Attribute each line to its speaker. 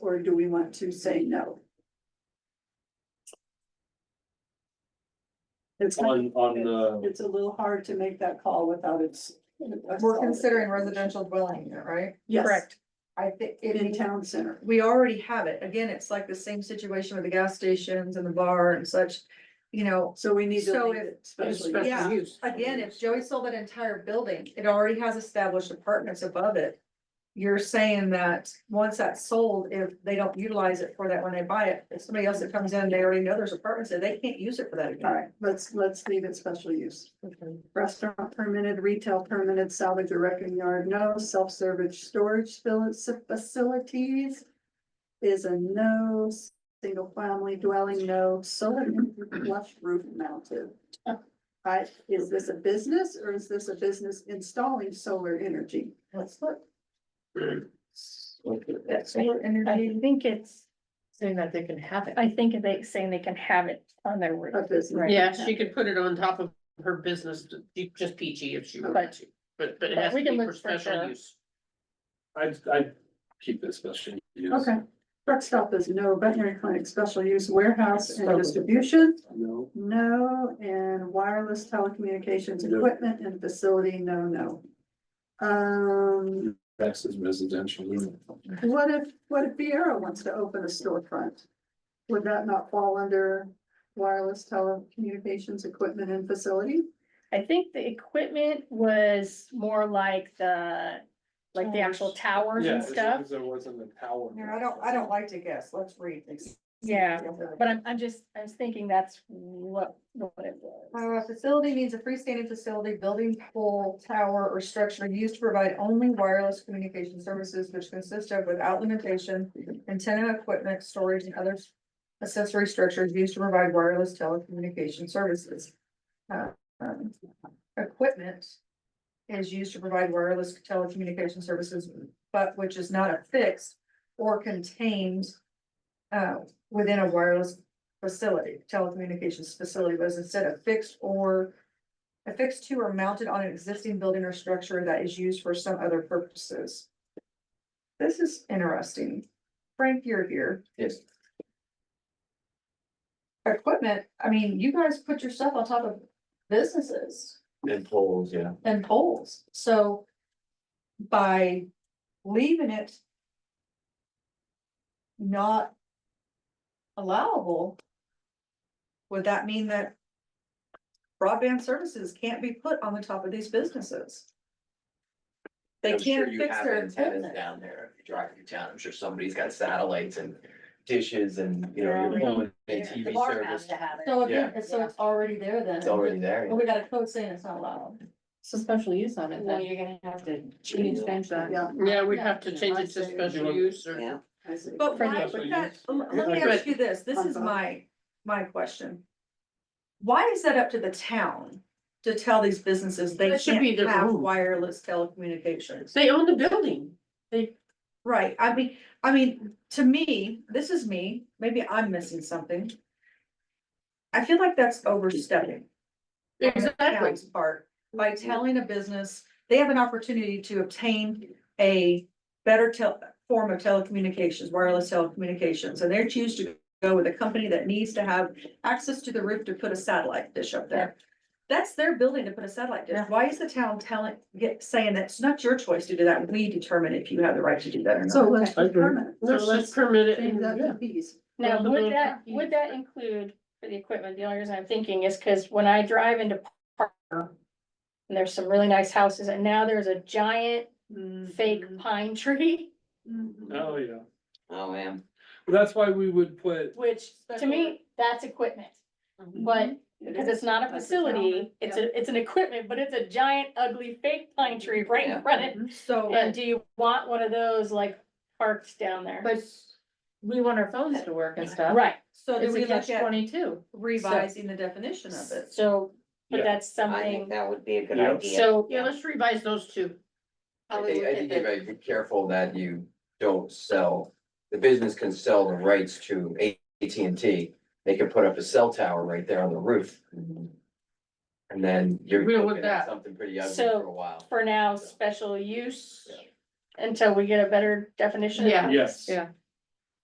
Speaker 1: or do we want to say no? It's kind
Speaker 2: on, on uh,
Speaker 1: of,
Speaker 2: the,
Speaker 1: it's a little hard to make that call without it's.
Speaker 3: We're considering residential dwelling unit, right?
Speaker 1: Yes,
Speaker 3: I think
Speaker 1: in
Speaker 3: it,
Speaker 1: town center.
Speaker 3: we already have it. Again, it's like the same situation with the gas stations and the bar and such. You know,
Speaker 1: So we need to
Speaker 3: So
Speaker 1: leave
Speaker 3: if-
Speaker 1: it especially.
Speaker 3: Special Yeah.
Speaker 4: use.
Speaker 3: again, if Joey sold that entire building, it already has established apartments above it. You're saying that once that's sold, if they don't utilize it for that when they buy it, if somebody else that comes in, they already know there's apartments there, they can't use it for that
Speaker 1: All
Speaker 3: again.
Speaker 1: right, let's, let's leave it special use. Restaurant permitted, retail permitted, salvage or wrecking yard, no, self-service storage fili- facilities. Is a no, single family dwelling, no, solar flush roof mounted. I, is this a business or is this a business installing solar energy?
Speaker 3: Let's look.
Speaker 5: I I think it's,
Speaker 4: Saying that they can have it.
Speaker 5: I think they saying they can have it on their
Speaker 1: A
Speaker 5: roof.
Speaker 1: business.
Speaker 5: Right.
Speaker 4: Yeah, she could put it on top of her business, just peachy if she wanted
Speaker 5: But-
Speaker 4: to, but, but it
Speaker 5: but
Speaker 4: has
Speaker 5: we
Speaker 4: to
Speaker 5: can
Speaker 4: be
Speaker 5: look
Speaker 4: for
Speaker 5: for
Speaker 4: special
Speaker 5: sure.
Speaker 4: use.
Speaker 2: I, I keep this special use.
Speaker 1: Okay, truck stop is no, veterinary clinic, special use warehouse and distribution.
Speaker 2: No,
Speaker 1: No, and wireless telecommunications
Speaker 2: No.
Speaker 1: equipment and facility, no, no. Um,
Speaker 2: that's is residential unit.
Speaker 1: what if, what if Viera wants to open a storefront? Would that not fall under wireless telecommunications equipment and facility?
Speaker 5: I think the equipment was more like the, like the actual towers
Speaker 2: Yeah,
Speaker 5: and
Speaker 2: as long
Speaker 5: stuff.
Speaker 2: as There wasn't a tower.
Speaker 3: Here, I don't, I don't like to guess. Let's read.
Speaker 5: Yeah, but I'm, I'm just, I was thinking that's what, what it was.
Speaker 3: Uh, facility means a freestanding facility, building, pole, tower, or structure used to provide only wireless communication services which consist of without limitation, antenna equipment, storage, and other accessory structures used to provide wireless telecommunication services. Uh, um, Equipment is used to provide wireless telecommunication services, but which is not affixed or contained uh, within a wireless facility, telecommunications facility was instead of fixed or affixed to or mounted on an existing building or structure that is used for some other purposes. This is interesting. Frank, you're here.
Speaker 4: Yes.
Speaker 3: Equipment, I mean, you guys put your stuff on top of businesses
Speaker 2: And poles, yeah.
Speaker 3: and poles, so by leaving it not allowable, would that mean that broadband services can't be put on the top of these businesses? They
Speaker 6: I'm sure
Speaker 3: can't
Speaker 6: you
Speaker 3: fix
Speaker 6: have
Speaker 3: their
Speaker 6: antennas
Speaker 3: equipment.
Speaker 6: Down there, if you drive through town, I'm sure somebody's got satellites and dishes and, you know, your phone and TV service.
Speaker 3: So again, it's- so it's already there then.
Speaker 6: It's already there.
Speaker 3: But we got a code saying it's not allowed.
Speaker 7: So special use on it,
Speaker 8: Well,
Speaker 7: then
Speaker 8: you're gonna have to change that.
Speaker 1: Yeah.
Speaker 4: Yeah, we'd have to change it to special use or.
Speaker 8: Yeah.
Speaker 1: I see.
Speaker 3: But
Speaker 5: For
Speaker 3: why
Speaker 5: the-
Speaker 3: would that, um,
Speaker 2: Yeah,
Speaker 3: let me
Speaker 4: but-
Speaker 3: ask you this, this is my, my question. Why is that up to the town to tell these businesses they
Speaker 4: That should be
Speaker 3: can't
Speaker 4: their
Speaker 3: have
Speaker 4: own.
Speaker 3: wireless telecommunications?
Speaker 4: They own the building. They,
Speaker 3: Right, I mean, I mean, to me, this is me, maybe I'm missing something. I feel like that's overstepping. on the
Speaker 4: exactly.
Speaker 3: town's Part, by
Speaker 7: Mm-hmm.
Speaker 3: telling a business, they have an opportunity to obtain a better tel- form of telecommunications, wireless telecommunications, and they choose to go with a company that needs to have access to the roof to put a satellite dish up there. That's their building to put a satellite dish. Why is the town telling, get, saying that's not your choice to do that? We determine if you have the right to do that or
Speaker 1: So
Speaker 3: not.
Speaker 1: let's
Speaker 2: I agree.
Speaker 1: permanent.
Speaker 4: So let's permit it.
Speaker 1: Change
Speaker 4: and-
Speaker 1: that
Speaker 4: yeah.
Speaker 1: to bees.
Speaker 5: Now,
Speaker 4: the
Speaker 5: would
Speaker 4: little
Speaker 5: that,
Speaker 4: truckies.
Speaker 5: would that include for the equipment? The only reason I'm thinking is because when I drive into Parker, and there's some really nice houses, and now there's a giant
Speaker 1: Mm-hmm.
Speaker 5: fake pine tree,
Speaker 2: Oh, yeah.
Speaker 6: Oh, man.
Speaker 2: Well, That's why we would put,
Speaker 5: which to me, that's equipment. But
Speaker 1: Mm-hmm.
Speaker 5: because it's not a
Speaker 1: That's a
Speaker 5: facility, it's a, it's an equipment, but it's a giant ugly fake pine tree right in front of it.
Speaker 3: So.
Speaker 5: And do you want one of those like parks down there?
Speaker 7: but we want our phones to work and stuff.
Speaker 5: Right,
Speaker 3: So do
Speaker 7: It's
Speaker 3: we
Speaker 7: a
Speaker 3: look
Speaker 7: catch
Speaker 3: at
Speaker 7: twenty-two.
Speaker 3: revising the definition of it?
Speaker 5: so,
Speaker 2: Yeah.
Speaker 5: but that's
Speaker 8: I think
Speaker 5: something,
Speaker 8: that would be a good
Speaker 2: Yeah.
Speaker 8: idea.
Speaker 5: so.
Speaker 4: Yeah, let's revise those two.
Speaker 6: I think, I think you gotta be careful that you don't sell, the business can sell the rights to AT&T. They can put up a cell tower right there on the roof. And then you're
Speaker 4: We don't want
Speaker 6: looking
Speaker 4: that.
Speaker 6: at something pretty ugly
Speaker 5: So-
Speaker 6: for a while.
Speaker 5: for now, special use. Until we get a better definition.
Speaker 7: Yeah.
Speaker 2: yes.
Speaker 7: Yeah.